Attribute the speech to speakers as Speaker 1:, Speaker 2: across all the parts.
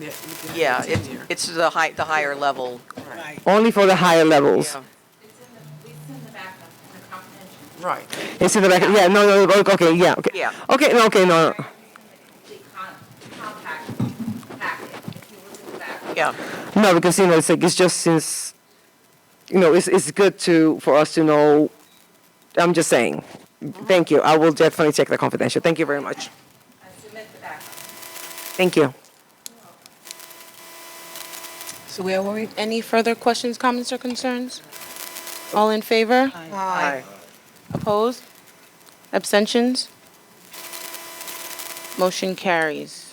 Speaker 1: Yeah, it's
Speaker 2: Yeah,
Speaker 1: in
Speaker 2: it's,
Speaker 1: here.
Speaker 2: it's the high, the higher level.
Speaker 1: Right,
Speaker 3: Only for the higher levels.
Speaker 2: Yeah.
Speaker 4: It's in the, it's in the backup, in the comprehension.
Speaker 1: right.
Speaker 3: It's in the back. Yeah, no, no, no, okay, yeah, okay.
Speaker 2: Yeah.
Speaker 3: Okay, no, okay, no.
Speaker 4: It's in the complete con- compact packet, if you look at the back.
Speaker 2: Yeah,
Speaker 3: No, because, you know, it's like, it's just since, you know, it's, it's good to, for us to know. I'm just saying. Thank you. I will definitely check the confidential. Thank you very much.
Speaker 4: I submit the backup.
Speaker 3: Thank you.
Speaker 5: So where were we? Any further questions, comments, or concerns? All in favor?
Speaker 3: Aye.
Speaker 5: Opposed? Abstentions? Motion carries.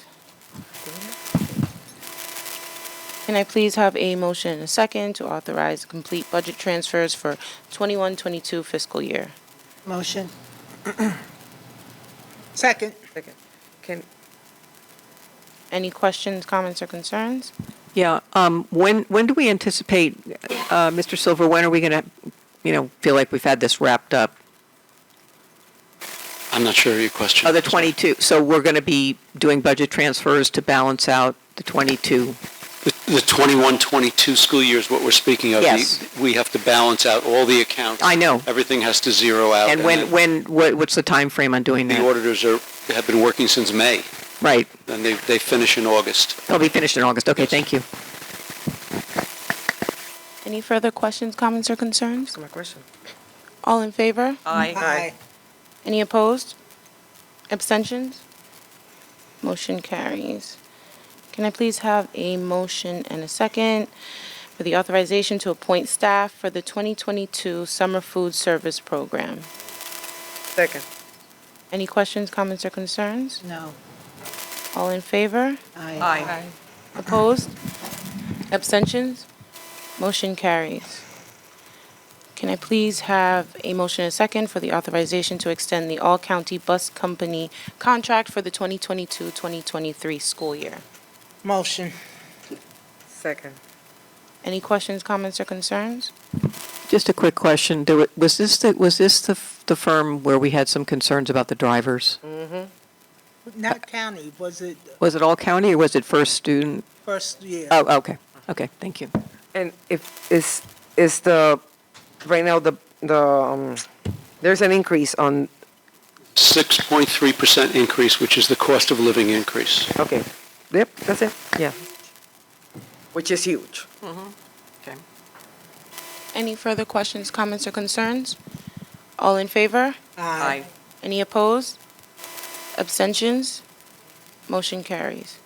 Speaker 5: Can I please have a motion and a second to authorize complete budget transfers for 21-22 fiscal year?
Speaker 6: Motion. Second.
Speaker 3: Can,
Speaker 5: Any questions, comments, or concerns?
Speaker 7: Yeah, um, when, when do we anticipate, uh, Mr. Silver, when are we going to, you know, feel like we've had this wrapped up?
Speaker 8: I'm not sure of your question.
Speaker 7: Oh, the 22, so we're going to be doing budget transfers to balance out the 22.
Speaker 8: The 21, 22 school year is what we're speaking of.
Speaker 7: Yes.
Speaker 8: The- We have to balance out all the accounts.
Speaker 7: I know.
Speaker 8: Everything has to zero out.
Speaker 7: And when,
Speaker 8: then
Speaker 7: when, what- what's the time frame on doing
Speaker 8: The
Speaker 7: that?
Speaker 8: auditors are, have been working since May,
Speaker 7: Right,
Speaker 8: and they, they finish in August.
Speaker 7: they'll be finished in August, okay, thank you.
Speaker 5: Any further questions, comments, or concerns?
Speaker 3: my question.
Speaker 5: All in favor?
Speaker 2: aye.
Speaker 5: Any opposed? Abstentions? Motion carries. Can I please have a motion and a second for the authorization to appoint staff for the 2022 Summer Food Service Program?
Speaker 3: Second.
Speaker 5: Any questions, comments, or concerns?
Speaker 6: No.
Speaker 5: All in favor?
Speaker 6: Aye.
Speaker 2: Aye.
Speaker 5: Opposed? Abstentions? Motion carries. Can I please have a motion and a second for the authorization to extend the all-county bus company contract for the 2022-2023 school year?
Speaker 6: Motion.
Speaker 3: Second.
Speaker 5: Any questions, comments, or concerns?
Speaker 7: Just a quick question, There wa- was this, the- was this the, f- the firm where we had some concerns about the drivers?
Speaker 2: Mm.
Speaker 6: Not county, was it
Speaker 7: Was it all county, or was it first student?
Speaker 6: first year?
Speaker 7: Oh, okay, okay, thank you.
Speaker 3: And if is is the right now the the um, there's an increase on
Speaker 8: 6.3% increase, which is the cost of living increase.
Speaker 3: okay. Yep, that's it. Yeah. Which is huge.
Speaker 5: Any further questions, comments, or concerns? All in favor?
Speaker 2: Aye.
Speaker 5: Any opposed? Abstentions? Motion carries.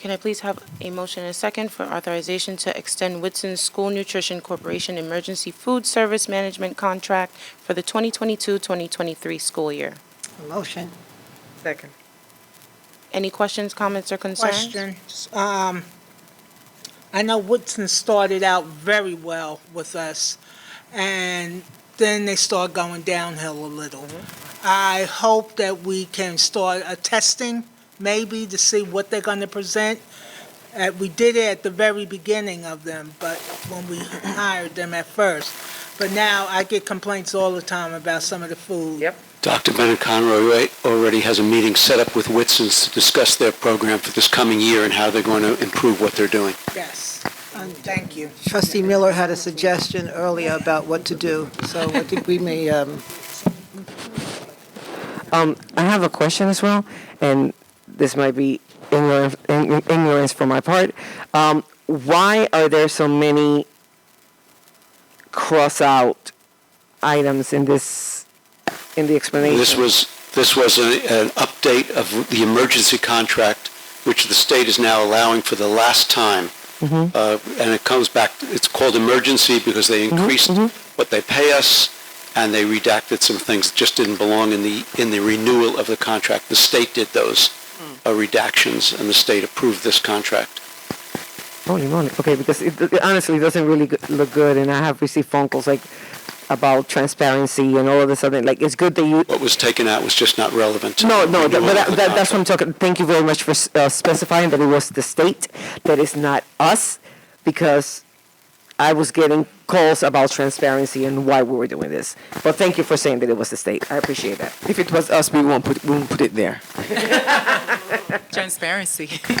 Speaker 5: Can I please have a motion and a second for authorization to extend Whitson School Nutrition Corporation Emergency Food Service Management Contract for the 2022-2023 school year?
Speaker 6: Motion.
Speaker 3: Second.
Speaker 5: Any questions, comments, or concerns?
Speaker 6: Question. Um, I know Woodson started out very well with us, and then they start going downhill a little. I hope that we can start a testing, maybe, to see what they're gonna present. Uh, we did it at the very beginning of them, but when we hired them at first. But now I get complaints all the time about some of the food.
Speaker 3: Yep.
Speaker 8: Dr. Bennett Conroy right, already has a meeting set up with Whitson's to discuss their program for this coming year and how they're going to improve what they're doing.
Speaker 6: Yes, and thank you.
Speaker 9: Um, Trustee Miller had a suggestion earlier about what to do, so I think we may, um,
Speaker 3: Um, I have a question as well, and this might be ignorance, ign- ignorance for my part. Um, why are there so many cross out items in this in the explanation?
Speaker 8: This was, this was a- an update of the emergency contract, which the state is now allowing for the last time.
Speaker 3: Mm-hmm.
Speaker 8: Uh, And it comes back, it's called emergency because they
Speaker 3: Mm-hmm,
Speaker 8: increased what they pay us, and they redacted some things that just didn't belong in the, in the renewal of the contract. The state did those
Speaker 3: Mm.
Speaker 8: uh, redactions, and the state approved this contract.
Speaker 3: Holy moly. Okay, because it, it honestly doesn't really go- look good, and I have received phone calls like about transparency and all of a sudden, like it's good that you.
Speaker 8: What was taken out was just not relevant to
Speaker 3: No,
Speaker 8: the
Speaker 3: no, that,
Speaker 8: renewal
Speaker 3: but
Speaker 8: of
Speaker 3: that,
Speaker 8: the
Speaker 3: that, that's what I'm
Speaker 8: contract.
Speaker 3: talking. Thank you very much for s- uh, specifying that it was the state, that it's not us, because I was getting calls about transparency and why we were doing this. But thank you for saying that it was the state. I appreciate that.
Speaker 1: If it was us, we won't put, we won't put it there.
Speaker 10: Transparency.